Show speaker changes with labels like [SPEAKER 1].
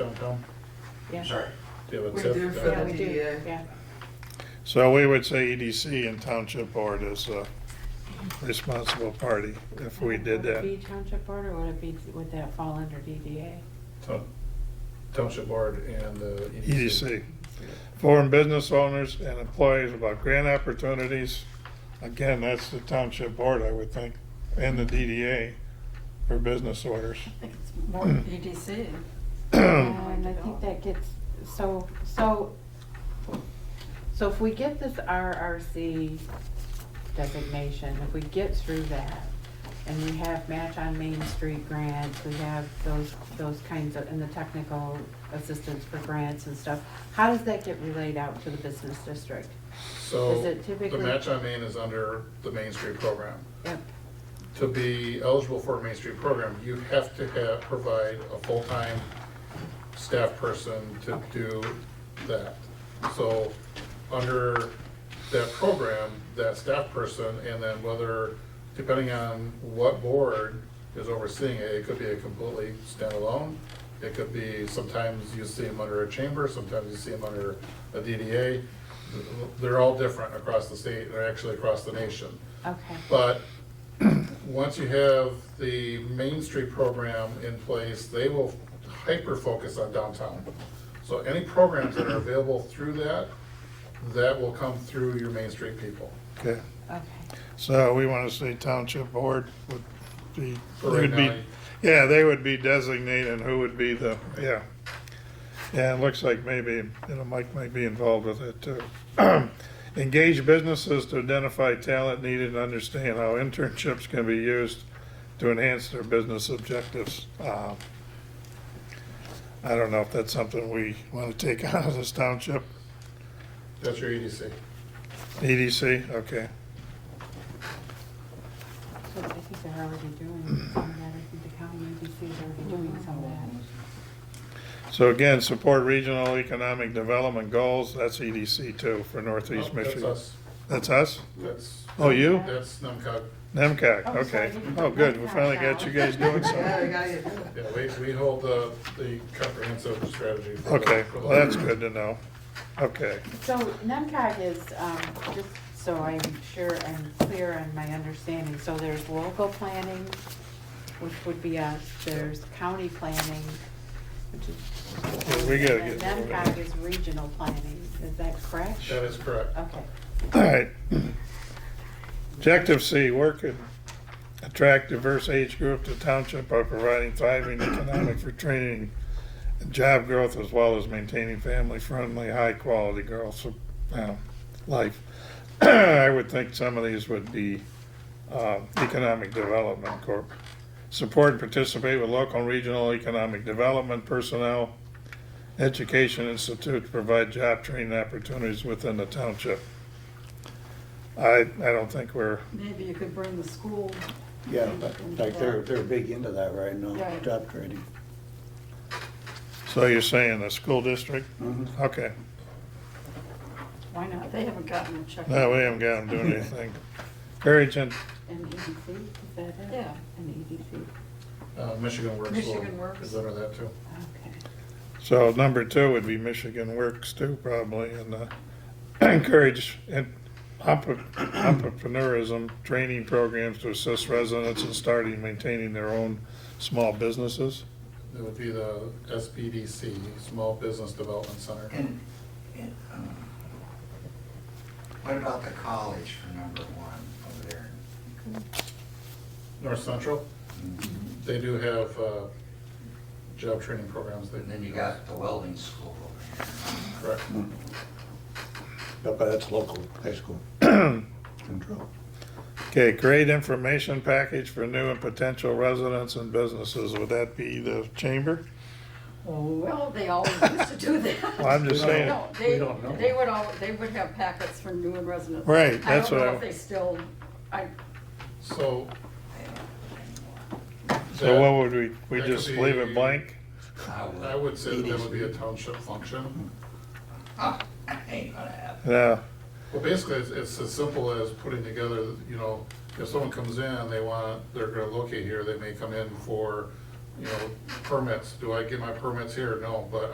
[SPEAKER 1] Tom?
[SPEAKER 2] Yeah.
[SPEAKER 3] Sorry.
[SPEAKER 1] Do you have a
[SPEAKER 4] We
[SPEAKER 1] tip?
[SPEAKER 4] do for
[SPEAKER 2] Yeah,
[SPEAKER 4] the E
[SPEAKER 2] we do,
[SPEAKER 4] DDA.
[SPEAKER 2] yeah.
[SPEAKER 5] So we would say EDC and Township Board is a responsible party if we did
[SPEAKER 2] Would it
[SPEAKER 5] that.
[SPEAKER 2] be township board, or would it be, would that fall under DDA?
[SPEAKER 1] Town- Township Board and the. E
[SPEAKER 5] EDC. Foreign business owners and employees about grant opportunities. Again, that's the Township Board, I would think, and the DDA for business orders.
[SPEAKER 4] I think it's more EDC.
[SPEAKER 2] Yeah, And I think that gets, so, so, so if we get this RRC designation, if we get through that, and we have Match on Main Street grants, we have those, those kinds of, and the technical assistance for grants and stuff, how does that get relayed out to the business district?
[SPEAKER 1] So
[SPEAKER 2] Is it
[SPEAKER 1] the
[SPEAKER 2] typically-
[SPEAKER 1] match on Main is under the Main Street program.
[SPEAKER 2] Yep,
[SPEAKER 1] To be eligible for a Main Street program, you have to have, provide a full-time staff person to do that. So under that program, that staff person, and then whether, depending on what board is overseeing it, it could be a completely standalone. It could be, sometimes you see them under a chamber, sometimes you see them under a DDA. They're all different across the state, or actually across the nation.
[SPEAKER 2] okay.
[SPEAKER 1] But once you have the Main Street program in place, they will hyper-focus on downtown. So any programs that are available through that, that will come through your Main Street people.
[SPEAKER 5] Okay,
[SPEAKER 2] Okay,
[SPEAKER 5] so we want to say Township Board would be,
[SPEAKER 1] For right
[SPEAKER 5] would be,
[SPEAKER 1] now,
[SPEAKER 5] yeah, they would be designated who would be the, yeah. Yeah, it looks like maybe, you know, Mike might be involved with it too. Engage businesses to identify talent needed and understand how internships can be used to enhance their business objectives. Uh, I don't know if that's something we want to take out of this township,
[SPEAKER 1] That's your EDC.
[SPEAKER 5] EDC, okay.
[SPEAKER 2] so I think they're already doing some of that, I think the county agency is already doing some of that.
[SPEAKER 5] So again, support regional economic development goals, that's EDC too for Northeast
[SPEAKER 1] Nope, Oh, that's
[SPEAKER 5] Michigan.
[SPEAKER 1] us.
[SPEAKER 5] That's us?
[SPEAKER 1] That's,
[SPEAKER 5] Oh, you?
[SPEAKER 1] that's NEMCOG.
[SPEAKER 5] NEMCAC,
[SPEAKER 2] Oh, sorry,
[SPEAKER 5] okay.
[SPEAKER 2] you did
[SPEAKER 5] Oh, good, we
[SPEAKER 2] NEMCAC
[SPEAKER 5] finally
[SPEAKER 2] now.
[SPEAKER 5] got you guys doing
[SPEAKER 4] Yeah, we
[SPEAKER 5] something.
[SPEAKER 4] gotta get to it.
[SPEAKER 1] Yeah, we, we hold the, the comprehensive strategy. for the-
[SPEAKER 5] Okay,
[SPEAKER 1] for the-
[SPEAKER 5] well, that's good to know. Okay,
[SPEAKER 2] So NEMCOG is, um, just so I'm sure I'm clear on my understanding, so there's local planning, which would be us, there's county planning, which is.
[SPEAKER 5] Yeah, we gotta
[SPEAKER 2] and
[SPEAKER 5] get-
[SPEAKER 2] then NEMCOG is regional planning, is that correct?
[SPEAKER 1] That is correct.
[SPEAKER 4] Oh.
[SPEAKER 2] Okay,
[SPEAKER 5] all right. Objective C, work and attract diverse age group to township by providing thriving economic for training and job growth as well as maintaining family-friendly, high-quality girls, uh, life. I would think some of these would be uh, Economic Development Corp. Support and participate with local and regional economic development personnel, education institute to provide job training opportunities within the township. I, I don't think we're,
[SPEAKER 4] Maybe you could bring the school.
[SPEAKER 3] Yeah, but, like, they're, they're big into that right now,
[SPEAKER 4] Right.
[SPEAKER 3] job training.
[SPEAKER 5] so you're saying the school district?
[SPEAKER 3] Mhm.
[SPEAKER 5] Okay,
[SPEAKER 2] why not?
[SPEAKER 4] They haven't gotten a check.
[SPEAKER 5] no, we haven't got them doing anything. Encourage and
[SPEAKER 4] E
[SPEAKER 2] An EDC, is that it?
[SPEAKER 4] Yeah. E
[SPEAKER 2] An EDC,
[SPEAKER 1] Uh, Michigan Works. will-
[SPEAKER 4] Michigan Works.
[SPEAKER 1] Is under that too.
[SPEAKER 2] okay.
[SPEAKER 5] So number two would be Michigan Works too, probably, and uh, encourage en- entre- entrepreneurism training programs to assist residents in starting and maintaining their own small businesses.
[SPEAKER 1] It would be the SBDC, Small Business Development Center.
[SPEAKER 6] And, and, um, what about the college for number one over there?
[SPEAKER 1] North Central, they do have uh, job training programs. they-
[SPEAKER 6] And then you got the welding school over here.
[SPEAKER 1] Correct.
[SPEAKER 3] But that's local, high school control.
[SPEAKER 5] Okay, create information package for new and potential residents and businesses. Would that be the chamber?
[SPEAKER 4] Well, they always used to do that.
[SPEAKER 5] Well, I'm just
[SPEAKER 3] No.
[SPEAKER 5] saying,
[SPEAKER 4] No, they,
[SPEAKER 3] We don't know.
[SPEAKER 4] they would all, they would have packets for new and residents.
[SPEAKER 5] Right, that's
[SPEAKER 4] I
[SPEAKER 5] what
[SPEAKER 4] don't
[SPEAKER 5] I-
[SPEAKER 4] know if they still, I,
[SPEAKER 1] So.
[SPEAKER 5] so
[SPEAKER 1] that-
[SPEAKER 5] what would we, we
[SPEAKER 1] That could
[SPEAKER 5] just leave it
[SPEAKER 1] be-
[SPEAKER 5] blank?
[SPEAKER 1] I would say that would be a township function.
[SPEAKER 6] Ah, Ain't gonna happen.
[SPEAKER 5] Yeah,
[SPEAKER 1] Well, basically, it's, it's as simple as putting together, you know, if someone comes in, they want, they're gonna locate here, they may come in for, you know, permits. Do I get my permits here? No, but